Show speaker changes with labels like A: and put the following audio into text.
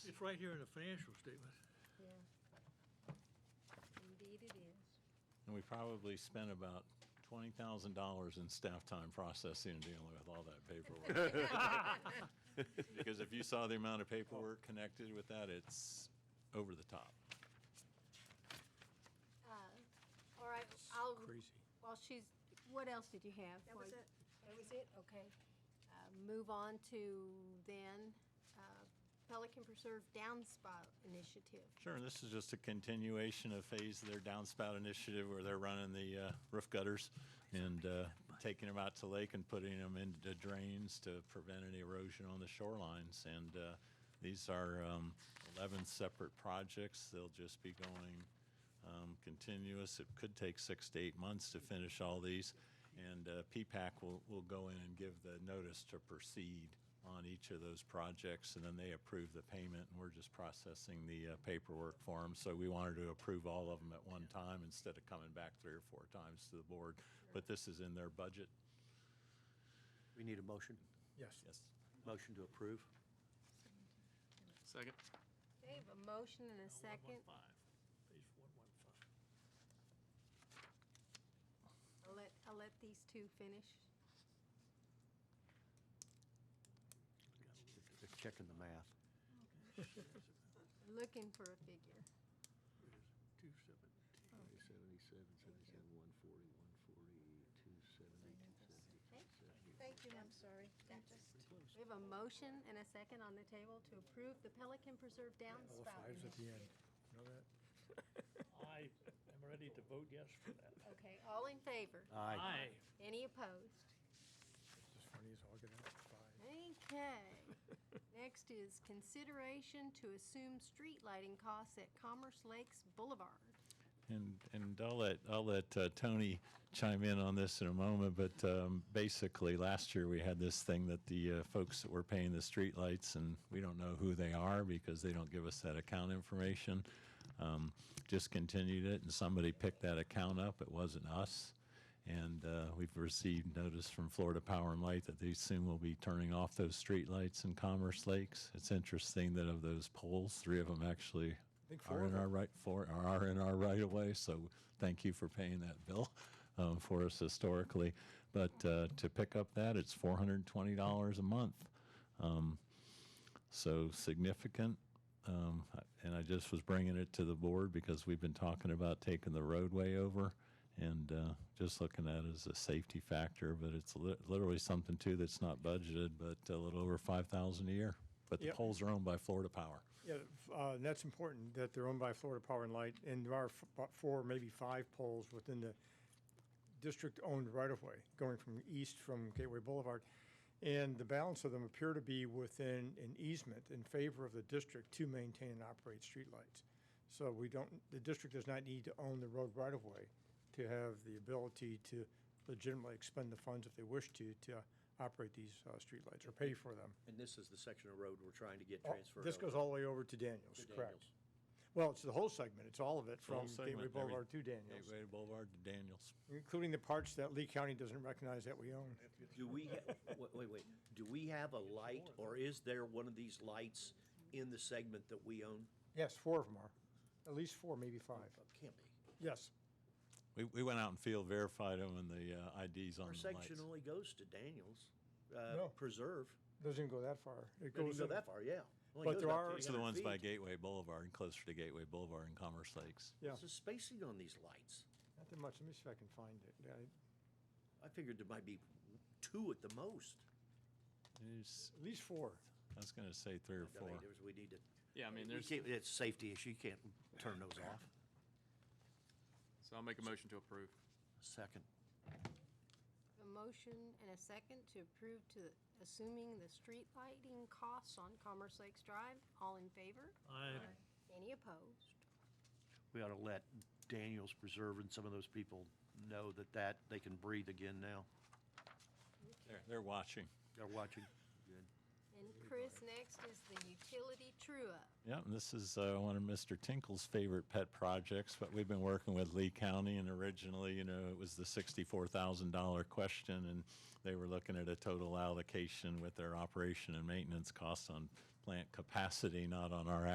A: It's right here in the financial statement.
B: Yeah. Indeed it is.
C: And we probably spent about twenty thousand dollars in staff time processing and dealing with all that paperwork. Because if you saw the amount of paperwork connected with that, it's over the top.
B: Uh, All right, I'll,
A: Crazy.
B: while she's, what else did you have?
D: That was
B: while-
D: it.
B: That was it, okay. Uh, Move on to then uh, Pelican Preserve Downspout Initiative.
C: Sure, and this is just a continuation of phase of their downspout initiative where they're running the uh, roof gutters and uh, taking them out to lake and putting them into drains to prevent any erosion on the shorelines. And uh, these are um, 11 separate projects. They'll just be going um, continuous. It could take six to eight months to finish all these. And uh, PPAC will, will go in and give the notice to proceed on each of those projects, and then they approve the payment, and we're just processing the uh, paperwork for them. So we wanted to approve all of them at one time instead of coming back three or four times to the board. But this is in their budget.
E: We need a motion?
A: Yes.
C: Yes.
E: Motion to approve?
F: Second.
B: They have a motion and a second.
A: Page 115.
B: I'll let, I'll let these two finish.
E: They're checking the math.
B: Looking for a figure.
A: 217.
E: 77, 77, 140, 140, 270, 270, 270.
D: Thank you, I'm sorry. That just,
B: We have a motion and a second on the table to approve the Pelican Preserve Downspout Initiative.
A: I am ready to vote yes for that.
B: Okay, all in favor?
E: Aye.
B: Any opposed? Okay. Next is consideration to assume street lighting costs at Commerce Lakes Boulevard.
C: And, and I'll let, I'll let uh, Tony chime in on this in a moment, but um, basically, last year, we had this thing that the uh, folks that were paying the streetlights, and we don't know who they are because they don't give us that account information, um, just continued it, and somebody picked that account up. It wasn't us. And uh, we've received notice from Florida Power and Light that they soon will be turning off those streetlights in Commerce Lakes. It's interesting that of those poles, three of them actually are in our right, for, are in our right of way. So thank you for paying that bill um, for us historically. But uh, to pick up that, it's $420 a month. Um, So significant. Um, and I just was bringing it to the board because we've been talking about taking the roadway over and uh, just looking at it as a safety factor, but it's li- literally something too that's not budgeted, but a little over 5,000 a year. But the
G: Yep.
C: poles are owned by Florida Power.
G: Yeah, f- uh, and that's important, that they're owned by Florida Power and Light, and there are f- about four, maybe five poles within the district-owned right-of-way, going from east from Gateway Boulevard. And the balance of them appear to be within an easement in favor of the district to maintain and operate streetlights. So we don't, the district does not need to own the road right-of-way to have the ability to legitimately expend the funds if they wish to, to operate these uh, streetlights or pay for them.
E: And this is the section of road we're trying to get
G: Oh,
E: transferred over?
G: This goes all the way over to Daniels,
E: to
G: correct.
E: Daniels.
G: Well, it's the whole segment. It's all of it
C: Whole
G: from
C: segment,
G: Gateway
C: every-
G: Boulevard to Daniels,
C: Gateway Boulevard to Daniels.
G: including the parts that Lee County doesn't recognize that we own.
E: Do we, ha- wait, wait, wait, do we have a light, or is there one of these lights in the segment that we own?
G: Yes, four of them are. At least four, maybe five.
E: Oh, Can't be.
G: Yes.
C: We, we went out and field verified them and the uh, IDs on
E: Our
C: the lights.
E: section only goes to Daniels,
G: No.
E: uh, Preserve.
G: Doesn't even go that far. It
E: Doesn't
G: goes
E: go
G: in-
E: that far, yeah. Only
G: But
E: goes
G: there
E: about
G: are-
C: Those are the
E: 300
C: ones by
E: feet.
C: Gateway Boulevard and closer to Gateway Boulevard and Commerce Lakes.
G: Yeah,
E: What's the spacing on these lights?
G: not that much. Let me see if I can find it. Yeah,
E: I figured there might be two at the most.
C: It's-
G: At least four.
C: I was going to say three or
E: I mean,
C: four.
E: there's, we need to.
F: Yeah, I mean,
E: we
F: there's,
E: can't- It's a safety issue, you can't turn those off.
F: so I'll make a motion to approve.
E: Second.
B: A motion and a second to approve to assuming the street lighting costs on Commerce Lakes Drive. All in favor?
A: I,
B: Any opposed?
E: We ought to let Daniels Preserve and some of those people know that that, they can breathe again now.
C: They're- They're watching.
E: They're watching. Good.
B: And Chris, next is the utility true-up.
C: Yeah, and this is uh, one of Mr. Tinkle's favorite pet projects, but we've been working with Lee County, and originally, you know, it was the $64,000 question, and they were looking at a total allocation with their operation and maintenance costs on plant capacity, not on our